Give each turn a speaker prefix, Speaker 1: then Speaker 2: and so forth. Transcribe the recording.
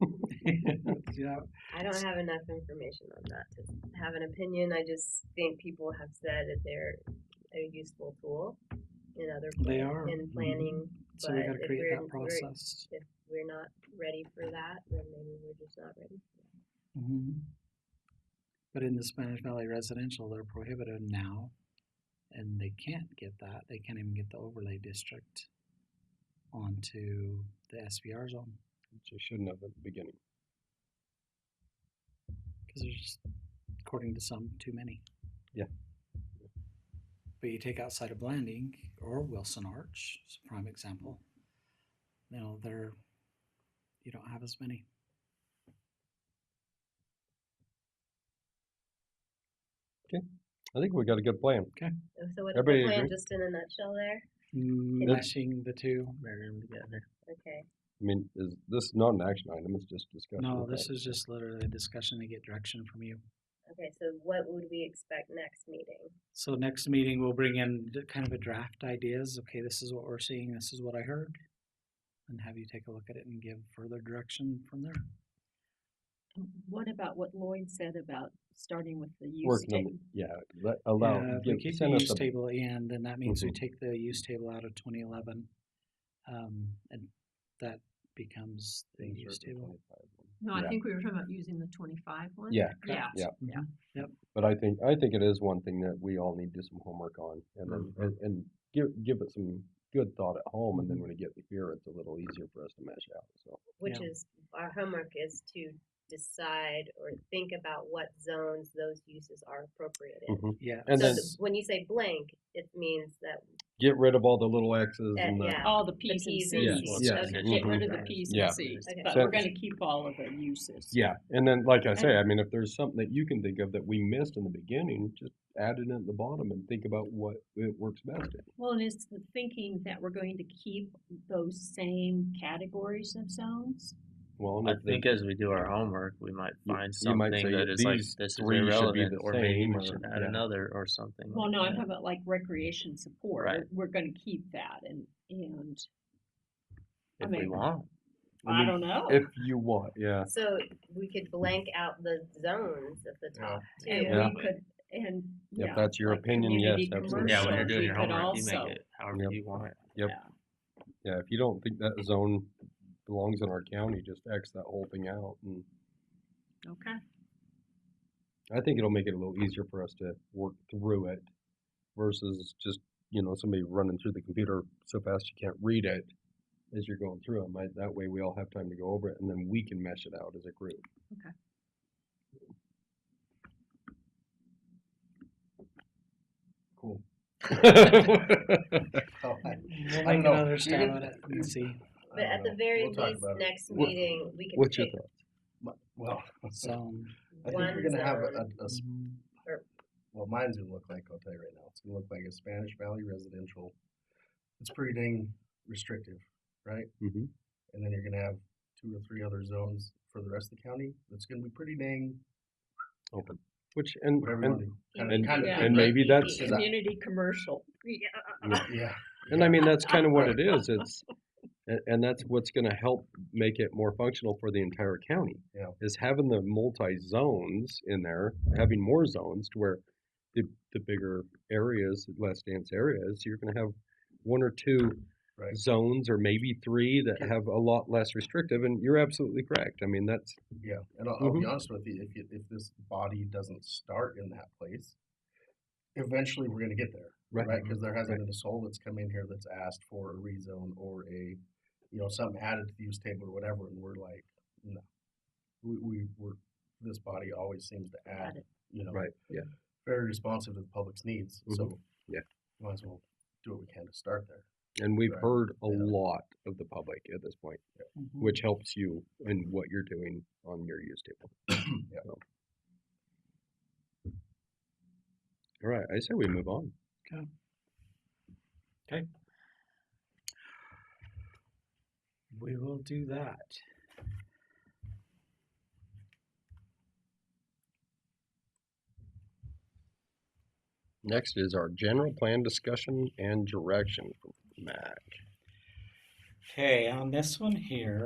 Speaker 1: Yeah,
Speaker 2: I don't have enough information on that to have an opinion. I just think people have said that they're a useful tool in other
Speaker 1: They
Speaker 2: pla-
Speaker 1: are. Mm-hmm.
Speaker 2: in planning.
Speaker 1: so we
Speaker 2: But
Speaker 1: gotta
Speaker 2: if
Speaker 1: create
Speaker 2: we're-
Speaker 1: that process.
Speaker 2: If we're not ready for that, then maybe we're just not ready.
Speaker 1: Mhm. But in the Spanish Valley residential, they're prohibited now, and they can't get that. They can't even get the overlay district onto the SVR zone
Speaker 3: which I shouldn't have at the beginning.
Speaker 1: because there's, just, according to some, too many.
Speaker 3: Yeah.
Speaker 1: But you take outside of Blanding or Wilson Arch, it's a prime example. You know, they're you don't have as many.
Speaker 3: I think we got a good plan.
Speaker 2: Uh, So what's the
Speaker 3: Everybody
Speaker 2: plan,
Speaker 3: agree?
Speaker 2: just in a nutshell there?
Speaker 1: Mashing Mm, the two.
Speaker 4: Marry them together.
Speaker 2: Okay,
Speaker 3: I mean, is this not an action item? It's just discussion.
Speaker 1: No,
Speaker 3: okay.
Speaker 1: this is just literally a discussion to get direction from you.
Speaker 2: okay, so what would we expect next meeting?
Speaker 1: So next meeting, we'll bring in d- kind of a draft ideas. Okay, this is what we're seeing, this is what I heard. And have you take a look at it and give further direction from there.
Speaker 5: And What about what Lloyd said about starting with the use
Speaker 3: working on
Speaker 5: table?
Speaker 3: the, yeah, let, allow
Speaker 1: Uh, if we
Speaker 3: give,
Speaker 1: keep the
Speaker 3: send us
Speaker 1: use
Speaker 3: a,
Speaker 1: table in, then that means we
Speaker 3: Mhm.
Speaker 1: take the use table out of twenty eleven. Um, and that becomes the
Speaker 3: things are
Speaker 1: use
Speaker 3: at the
Speaker 1: table.
Speaker 3: 25 one.
Speaker 5: No, I
Speaker 3: Yeah.
Speaker 5: think we were talking about using the twenty-five one.
Speaker 3: Yeah,
Speaker 5: Yeah.
Speaker 3: yeah.
Speaker 5: Yeah.
Speaker 3: But I think I think it is one thing that we all need to do some homework on, and then
Speaker 1: Mm-hmm.
Speaker 3: and, and give give it some good thought at home, and then when we get here, it's a little easier for us to mesh out. So
Speaker 2: Which
Speaker 1: Yeah.
Speaker 2: is, our homework is to decide or think about what zones those uses are appropriate in.
Speaker 3: Mhm.
Speaker 1: Yeah.
Speaker 3: and
Speaker 2: So
Speaker 3: then
Speaker 2: the- when you say blank, it means that,
Speaker 3: get rid of all the little X's
Speaker 5: Eh,
Speaker 2: that-
Speaker 3: and the
Speaker 2: yeah,
Speaker 5: All the Ps and
Speaker 2: Ps and
Speaker 3: Yes,
Speaker 5: Cs.
Speaker 3: yes, okay,
Speaker 5: Okay, Get rid of the
Speaker 1: mhm.
Speaker 5: Ps
Speaker 3: Yeah.
Speaker 5: and Cs,
Speaker 2: Okay.
Speaker 5: but we're
Speaker 3: Sentence.
Speaker 5: gonna keep all of the uses.
Speaker 3: Yeah, and then like I say,
Speaker 5: And-
Speaker 3: I mean, if there's something that you can think of that we missed in the beginning, just add it in at the bottom and think about what it works best in.
Speaker 5: Well, and it's the thinking that we're going to keep those same categories of zones?
Speaker 3: Well, and
Speaker 4: I
Speaker 3: if the-
Speaker 4: think as we do our homework, we might
Speaker 3: You-
Speaker 4: find
Speaker 3: you might
Speaker 4: something
Speaker 3: say
Speaker 4: that is like,
Speaker 3: these
Speaker 4: this is
Speaker 3: three should be
Speaker 4: irrelevant,
Speaker 3: the
Speaker 4: or maybe
Speaker 3: same,
Speaker 4: we
Speaker 3: or-
Speaker 4: should add
Speaker 3: yeah.
Speaker 4: another or something.
Speaker 5: Well,
Speaker 4: like
Speaker 5: no, I'm
Speaker 4: that.
Speaker 5: talking about like recreation support.
Speaker 4: Right.
Speaker 5: We're- We're gonna keep that and, and, I
Speaker 4: If we
Speaker 5: mean-
Speaker 4: want,
Speaker 3: I
Speaker 5: I
Speaker 3: mean,
Speaker 5: don't know.
Speaker 3: if you want, yeah,
Speaker 2: so we could blank out the zones at the
Speaker 4: Yeah.
Speaker 2: top
Speaker 5: And
Speaker 2: too.
Speaker 3: Yeah.
Speaker 5: we could, and, yeah.
Speaker 3: if that's your
Speaker 5: like
Speaker 3: opinion, yes,
Speaker 5: community
Speaker 3: absolutely.
Speaker 4: yeah, when
Speaker 5: commercial,
Speaker 4: you're doing
Speaker 5: we
Speaker 4: your
Speaker 5: could
Speaker 4: homework, you
Speaker 5: also-
Speaker 4: make it however
Speaker 3: Yep.
Speaker 4: you want it.
Speaker 3: Yep.
Speaker 5: yeah.
Speaker 3: yeah. If you don't think that zone belongs in our county, just X that whole thing out, and
Speaker 5: Okay.
Speaker 3: I think it'll make it a little easier for us to work through it versus just you know somebody running through the computer so fast you can't read it as you're going through them. that way, we all have time to go over it, and then we can mesh it out as a group.
Speaker 6: Cool.
Speaker 3: Yep.
Speaker 6: So, Oh, I-
Speaker 1: We'll
Speaker 6: I
Speaker 1: make
Speaker 6: don't know.
Speaker 1: another
Speaker 6: You're
Speaker 1: stab
Speaker 6: gonna-
Speaker 1: at it and see.
Speaker 2: But at the very
Speaker 6: We'll talk
Speaker 2: least,
Speaker 6: about it.
Speaker 2: next
Speaker 3: What-
Speaker 2: meeting, we could
Speaker 3: What's your
Speaker 2: pick
Speaker 3: thoughts?
Speaker 6: Well, I think
Speaker 1: So. mm-hmm.
Speaker 6: we're
Speaker 2: one
Speaker 6: gonna have a,
Speaker 2: zone.
Speaker 6: a- a s- well, mine's gonna look like, I'll tell you right now, it's gonna look like a Spanish Valley residential. It's pretty dang restrictive, right?
Speaker 3: Mhm.
Speaker 6: And then you're gonna have two or three other zones for the rest of the county. It's gonna be pretty dang,
Speaker 3: Open. Which and,
Speaker 6: whatever you wanna
Speaker 3: and
Speaker 6: do.
Speaker 2: And-
Speaker 6: Kinda- kinda
Speaker 5: Yeah.
Speaker 6: thing,
Speaker 3: and
Speaker 6: right?
Speaker 3: maybe that's
Speaker 2: Yeah.
Speaker 5: Community commercial. Yeah.
Speaker 6: Yeah.
Speaker 3: and I mean that's kind of what it is. It's and, and that's what's going to help make it more functional for the entire county.
Speaker 6: Yeah.
Speaker 3: Is having the multi zones in there, having more zones to where the the bigger areas, less dense areas, you're going to have one or two
Speaker 6: Right.
Speaker 3: zones or maybe three that have a lot less restrictive. And you're absolutely correct. I mean that's
Speaker 6: Yeah, and I'll, I'll
Speaker 3: Mm-hmm.
Speaker 6: be honest with you, if you, if this body doesn't start in that place, eventually we're gonna get there,
Speaker 3: Right. Mm-hmm.
Speaker 6: right? Because there hasn't
Speaker 3: Right.
Speaker 6: been a soul that's come in here that's asked for a rezone or a, you know, something added to the use table or whatever, and we're like, no. We, we, we're, this body always seems to add, you know,
Speaker 3: right. Yeah.
Speaker 6: very responsive to the public's needs,
Speaker 3: Mhm.
Speaker 6: so.
Speaker 3: Yeah.
Speaker 6: Might as well do what we can to start there.
Speaker 3: And we've
Speaker 6: Right.
Speaker 3: heard a
Speaker 6: Yeah.
Speaker 3: lot of the public at this point.
Speaker 1: Mm-hmm.
Speaker 3: which helps you in what you're doing on your use table.
Speaker 6: Yeah.
Speaker 3: So. All right, I say we move on.
Speaker 1: We will do that.
Speaker 3: Next is our general plan discussion and direction from Matt.
Speaker 1: Okay, on this one here,